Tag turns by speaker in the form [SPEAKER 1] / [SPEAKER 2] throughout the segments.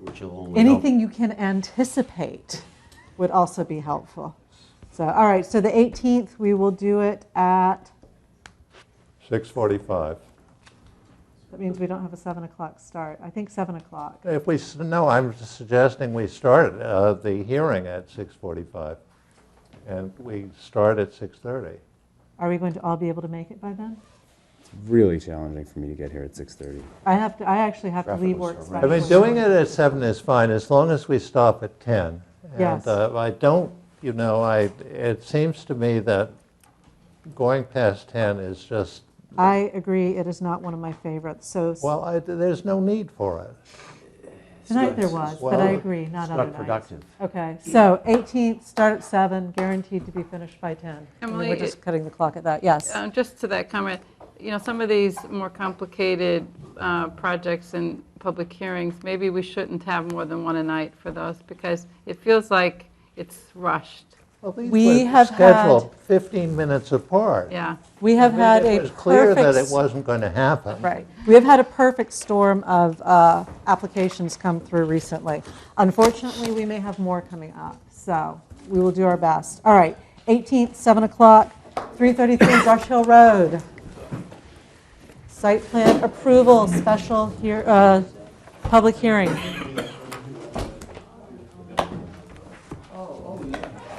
[SPEAKER 1] which will only help.
[SPEAKER 2] Anything you can anticipate would also be helpful. So, all right, so the 18th, we will do it at,
[SPEAKER 3] 6:45.
[SPEAKER 2] that means we don't have a 7 o'clock start. I think 7 o'clock.
[SPEAKER 3] If we, s- no, I'm suggesting we start uh, the hearing at 6:45, and we start at 6:30.
[SPEAKER 2] Are we going to all be able to make it by then?
[SPEAKER 4] Really challenging for me to get here at 6:30.
[SPEAKER 2] I have to, I actually have to
[SPEAKER 4] Traffic
[SPEAKER 2] leave
[SPEAKER 4] was
[SPEAKER 2] work.
[SPEAKER 4] horrendous.
[SPEAKER 3] I mean, doing it at 7 is fine, as long as we stop at 10.
[SPEAKER 2] Yes.
[SPEAKER 3] And uh, I don't, you know, I, it seems to me that going past 10 is just,
[SPEAKER 2] I agree, it is not one of my favorites, so s-
[SPEAKER 3] well, I- there's no need for it.
[SPEAKER 2] tonight there was, but I
[SPEAKER 3] well,
[SPEAKER 2] agree,
[SPEAKER 1] It's
[SPEAKER 2] not other
[SPEAKER 1] not
[SPEAKER 2] nights.
[SPEAKER 1] productive.
[SPEAKER 2] Okay, so 18th, start at 7, guaranteed to be finished by 10. I mean, We're
[SPEAKER 5] Emily,
[SPEAKER 2] just cutting the clock at that, yes.
[SPEAKER 5] Um, Just to that comment, you know, some of these more complicated uh, projects and public hearings, maybe we shouldn't have more than one a night for those because it feels like it's rushed.
[SPEAKER 3] Well, these
[SPEAKER 2] We
[SPEAKER 3] were
[SPEAKER 2] have
[SPEAKER 3] scheduled 15 minutes apart.
[SPEAKER 5] Yeah.
[SPEAKER 2] We have
[SPEAKER 3] I mean,
[SPEAKER 2] had a
[SPEAKER 3] It was clear that
[SPEAKER 2] perfect
[SPEAKER 3] it wasn't going to happen.
[SPEAKER 2] Right. We have had a perfect storm of uh, applications come through recently. Unfortunately, we may have more coming up, so we will do our best. All right, 18th, 7 o'clock, 333 Brush Hill Road. Site plan approval, special hear- uh, public hearing. Oh,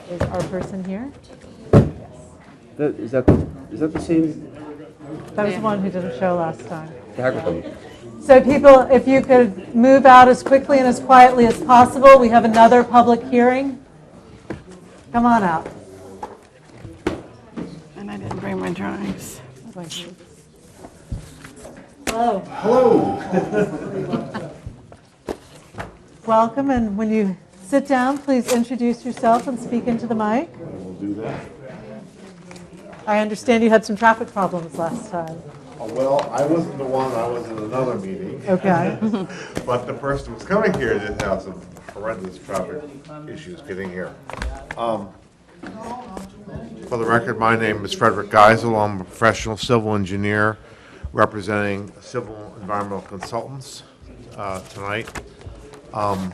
[SPEAKER 2] Is our person here?
[SPEAKER 6] That, is that is that the same?
[SPEAKER 2] That was the one who didn't show last time.
[SPEAKER 6] The hacker thing?
[SPEAKER 2] So people, if you could move out as quickly and as quietly as possible, we have another public hearing. Come on out.
[SPEAKER 5] And I didn't bring my drawings.
[SPEAKER 2] Hello. Hello. Welcome, and when you sit down, please introduce yourself and speak into the mic. I will do that. I understand you had some traffic problems last time.
[SPEAKER 7] Oh, Well, I wasn't the one, I was in another meeting,
[SPEAKER 2] Okay.
[SPEAKER 7] but the person who was coming here did have some horrendous traffic issues getting here. Um, For the record, my name is Frederick Geisel, I'm a professional civil engineer representing Civil Environmental Consultants uh, tonight. Um,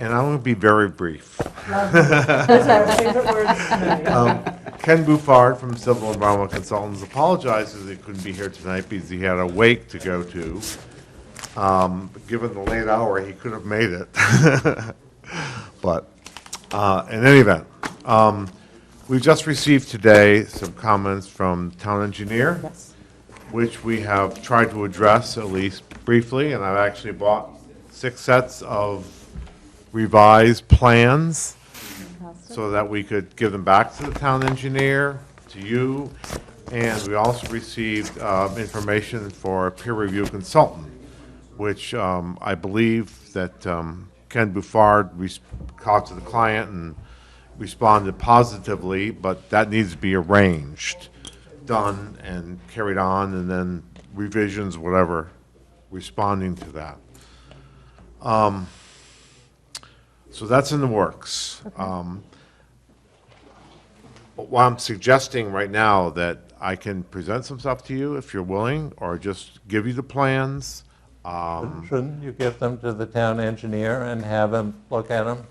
[SPEAKER 7] And I'm going to be very brief.
[SPEAKER 2] Those are our favorite words tonight.
[SPEAKER 7] Um, Ken Bouffard from Civil Environmental Consultants apologizes he couldn't be here tonight because he had a wake to go to. Um, but Given the late hour, he could have made it. But uh, in any event, um, we've just received today some comments from town engineer, which we have tried to address at least briefly, and I've actually bought six sets of revised plans so that we could give them back to the town engineer, to you, and we also received um, information for a peer review consultant, which um, I believe that um, Ken Bouffard res- talked to the client and responded positively, but that needs to be arranged, done, and carried on, and then revisions, whatever, responding to that. Um, So that's in the works. Um, But what I'm suggesting right now, that I can present some stuff to you if you're willing, or just give you the plans. Um,
[SPEAKER 3] Shouldn't you give them to the town engineer and have him look at them?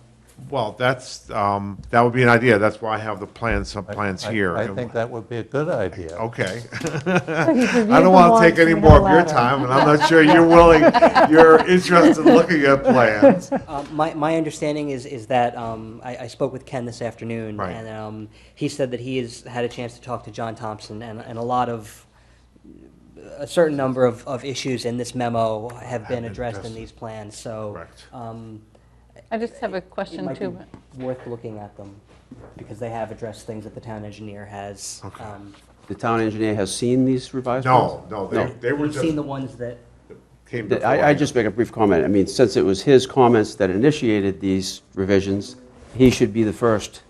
[SPEAKER 7] Well, that's, um, that would be an idea, that's why I have the plans, some plans
[SPEAKER 3] I-
[SPEAKER 7] here.
[SPEAKER 3] I think that would be a good idea.
[SPEAKER 7] Okay.
[SPEAKER 2] So he's reviewed
[SPEAKER 7] I
[SPEAKER 2] them
[SPEAKER 7] don't want to
[SPEAKER 2] once
[SPEAKER 7] take any
[SPEAKER 2] and we have a
[SPEAKER 7] more of your
[SPEAKER 2] ladder.
[SPEAKER 7] time, and I'm not sure you're willing, you're interested in looking at plans.
[SPEAKER 8] Uh, My, my understanding is, is that, um, I, I spoke with Ken this afternoon.
[SPEAKER 7] Right.
[SPEAKER 8] And, um, he said that he has had a chance to talk to John Thompson and, and a lot of, a certain number of, of issues in this memo have been addressed in
[SPEAKER 7] addressed.
[SPEAKER 8] these plans, so.
[SPEAKER 7] Correct.
[SPEAKER 8] Um,
[SPEAKER 5] I just have a
[SPEAKER 8] it
[SPEAKER 5] question
[SPEAKER 8] might
[SPEAKER 5] too.
[SPEAKER 8] be worth looking at them, because they have addressed things that the town engineer has. Um,
[SPEAKER 6] The town engineer has seen these revised plans?
[SPEAKER 7] No, no, they, they were
[SPEAKER 8] He's
[SPEAKER 7] just,
[SPEAKER 8] seen the ones that,
[SPEAKER 7] came
[SPEAKER 6] Th-
[SPEAKER 7] before.
[SPEAKER 6] I, I
[SPEAKER 7] you.
[SPEAKER 6] just make a brief comment. I mean, since it was his comments that initiated these revisions, he should be the first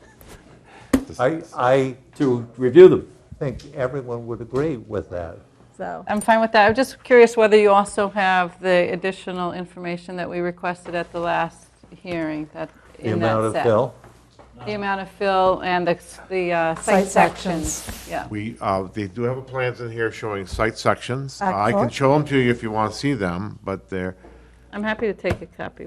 [SPEAKER 3] I, I
[SPEAKER 6] to review them.
[SPEAKER 3] think everyone would agree with that.
[SPEAKER 2] So,
[SPEAKER 5] I'm fine with that. I'm just curious whether you also have the additional information that we requested at the last hearing, that,
[SPEAKER 3] The
[SPEAKER 5] in
[SPEAKER 3] amount
[SPEAKER 5] that
[SPEAKER 3] of
[SPEAKER 5] set.
[SPEAKER 3] fill.
[SPEAKER 5] The amount of fill and the, the uh,
[SPEAKER 2] Site
[SPEAKER 5] site
[SPEAKER 2] sections.
[SPEAKER 5] sections. Yeah.
[SPEAKER 7] We, uh, they do have a plans in here showing site sections. I can
[SPEAKER 2] Excellent.
[SPEAKER 7] show them to you if you want to see them, but they're,
[SPEAKER 5] I'm happy to take a copy